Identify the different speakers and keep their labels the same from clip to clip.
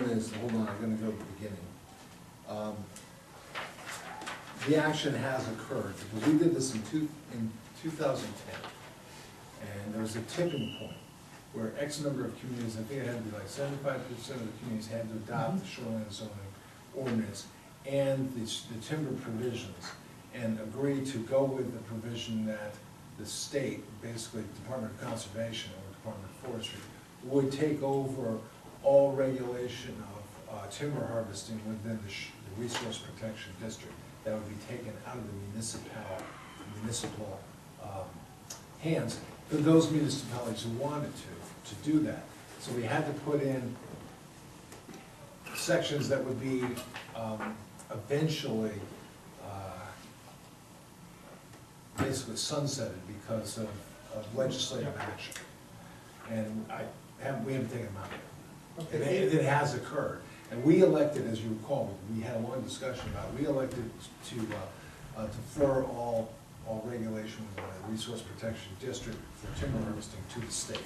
Speaker 1: is, hold on, I'm gonna go to the beginning. Um, The action has occurred, because we did this in two, in two thousand ten. And there was a tipping point where X number of communities, I think it had to be like seventy-five percent of the communities had to adopt the shoreline zoning ordinance and the s- the timber provisions, and agree to go with the provision that the state, basically Department of Conservation or Department of Forestry, would take over all regulation of uh, timber harvesting within the sh- the resource protection district. That would be taken out of the municipal, municipal um, hands for those municipalities who wanted to, to do that. So we had to put in sections that would be um, eventually uh, basically sunsetted because of of legislative action. And I, haven't- we haven't taken them out yet. And
Speaker 2: Okay.
Speaker 1: it- it has occurred. And we elected, as you recall, we had a long discussion about, we elected to uh, uh, defer all, all regulation of the Resource Protection District for timber harvesting to the state.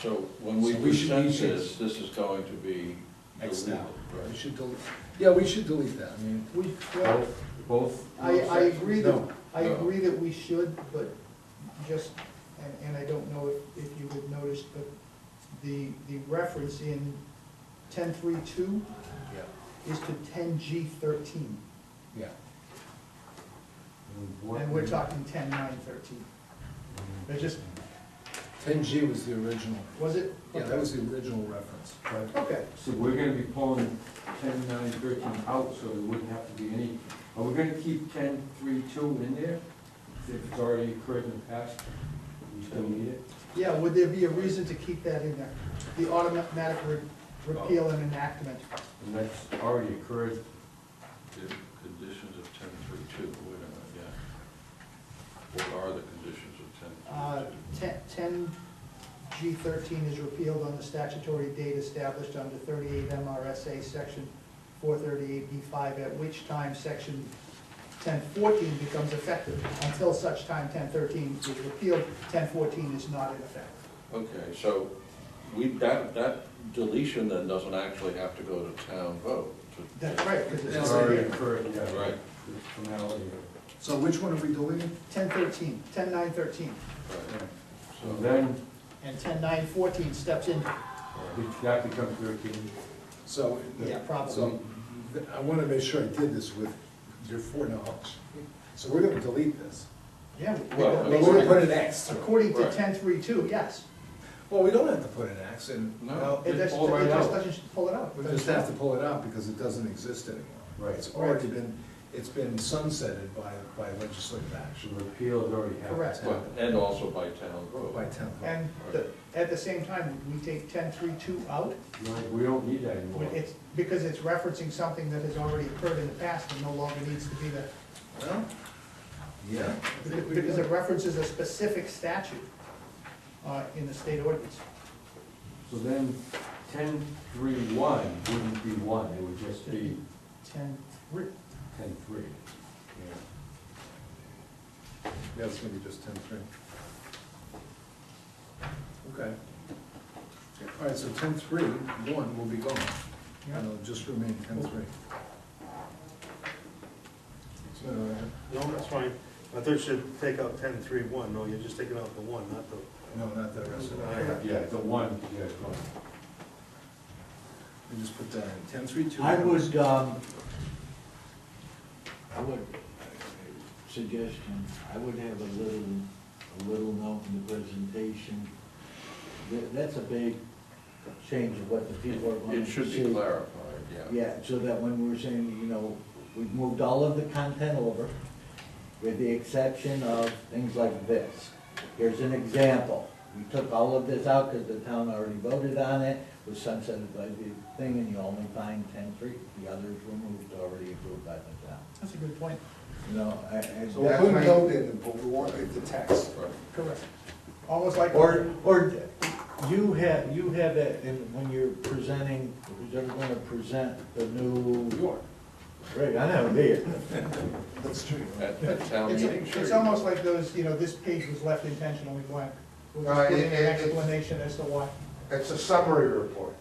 Speaker 3: So when we
Speaker 1: So we should- we
Speaker 3: present
Speaker 1: should-
Speaker 3: this, this is going to be
Speaker 1: X
Speaker 3: deleted,
Speaker 1: now. We
Speaker 3: right?
Speaker 1: should delete, yeah, we should delete that, I mean,
Speaker 2: We, well,
Speaker 4: Both, both,
Speaker 2: I, I agree that,
Speaker 1: No,
Speaker 2: I
Speaker 3: no.
Speaker 2: agree that we should, but just, and, and I don't know if, if you had noticed, but the, the reference in ten three two
Speaker 1: yeah,
Speaker 2: is to ten G thirteen,
Speaker 1: yeah.
Speaker 4: what-
Speaker 2: and we're talking ten nine thirteen. It just,
Speaker 1: Ten G was the original,
Speaker 2: was it?
Speaker 1: yeah, that was the original reference.
Speaker 2: Okay,
Speaker 4: So we're gonna be pulling ten nine thirteen out, so there wouldn't have to be any, are we gonna keep ten three two in there? If it's already occurred in the past, we still need it?
Speaker 2: yeah, would there be a reason to keep that in there? The automatic re- repeal and enactment,
Speaker 4: And that's already occurred,
Speaker 3: The conditions of ten three two, wait a minute, yeah. What are the conditions
Speaker 2: uh,
Speaker 3: of ten
Speaker 2: ten, ten G thirteen is repealed on the statutory date established under thirty-eight MRSA section four thirty-eight B five, at which time section ten fourteen becomes effective. Until such time ten thirteen is repealed, ten fourteen is not in effect.
Speaker 3: three two? Okay, so we, that, that deletion then doesn't actually have to go to town vote. to-
Speaker 2: That's right, because
Speaker 4: it's
Speaker 1: Yes.
Speaker 2: it's
Speaker 4: already occurred, yeah.
Speaker 3: Right.
Speaker 4: The Formality of it.
Speaker 1: So which one are we deleting?
Speaker 2: ten thirteen, ten nine thirteen,
Speaker 3: Right.
Speaker 4: So
Speaker 3: So,
Speaker 4: then,
Speaker 2: and ten nine fourteen steps in,
Speaker 3: uh,
Speaker 4: it- that becomes thirteen.
Speaker 1: So.
Speaker 2: yeah, probably.
Speaker 1: So, th- I wanna make sure I did this with your foreknowledge. So we're gonna delete this.
Speaker 2: Yeah. we-
Speaker 3: Well,
Speaker 2: we-
Speaker 1: But
Speaker 3: Basically-
Speaker 1: we're gonna put an X through it.
Speaker 2: According to
Speaker 3: Right.
Speaker 2: ten three two, yes.
Speaker 1: Well, we don't have to put an X in.
Speaker 3: No.
Speaker 2: It just,
Speaker 4: all
Speaker 2: it
Speaker 4: right
Speaker 2: just
Speaker 4: out.
Speaker 2: doesn't pull it out.
Speaker 1: We just have to pull it out because it doesn't exist anymore.
Speaker 4: Right.
Speaker 1: It's already been, it's been sunsetted by, by legislative
Speaker 4: So
Speaker 1: action
Speaker 4: the repeal has already happened.
Speaker 2: Correct.
Speaker 3: but- And also by town
Speaker 1: or
Speaker 3: vote.
Speaker 1: by town. vote.
Speaker 2: And the, at the same time, we take ten three two out,
Speaker 4: No, We don't need that
Speaker 2: when
Speaker 4: anymore.
Speaker 2: it's, because it's referencing something that has already occurred in the past and no longer needs to be there.
Speaker 1: Well, yeah. I think we
Speaker 2: Because
Speaker 1: did.
Speaker 2: it references a specific statute, uh, in the state ordinance.
Speaker 4: So then, ten three one wouldn't be one, it would just be
Speaker 2: Ten three,
Speaker 4: ten three.
Speaker 1: Yeah, it's gonna be just ten three. Okay. All right, so ten three, one will be gone,
Speaker 2: yeah.
Speaker 1: and it'll just remain ten three. So, uh,
Speaker 5: No, that's fine. I thought you should take out ten, three, one. No, you're just taking out the one, not the,
Speaker 1: no, not the rest of it,
Speaker 5: Alright.
Speaker 4: Yeah, the one, yeah, it's one.
Speaker 1: we just put that in, ten three two.
Speaker 6: I would, um, I would, suggestion, I would have a little, a little note in the presentation. That, that's a big change of what the people are going
Speaker 3: It
Speaker 6: to see.
Speaker 3: should be clarified, yeah.
Speaker 6: Yeah, so that when we were saying, you know, we've moved all of the content over, with the exception of things like this. Here's an example. We took all of this out because the town already voted on it, was sunsetted by the thing, and you only find ten free. The others were moved, already approved by the town.
Speaker 2: That's a good point.
Speaker 6: You know, I, I.
Speaker 1: So we'll put a note in, but we want it the text.
Speaker 3: Right.
Speaker 2: Correct. Almost like.
Speaker 6: Or, or you have, you have it, in- when you're presenting, who's ever gonna present the new,
Speaker 1: are.
Speaker 6: right, I know, there.
Speaker 1: That's true.
Speaker 3: At, at town
Speaker 2: It's,
Speaker 3: meeting, sure.
Speaker 2: it's almost like those, you know, this page was left intentionally blank. We're just
Speaker 7: Right,
Speaker 2: putting
Speaker 7: it-
Speaker 2: an
Speaker 7: it- it's-
Speaker 2: explanation as to why.
Speaker 7: It's a summary report.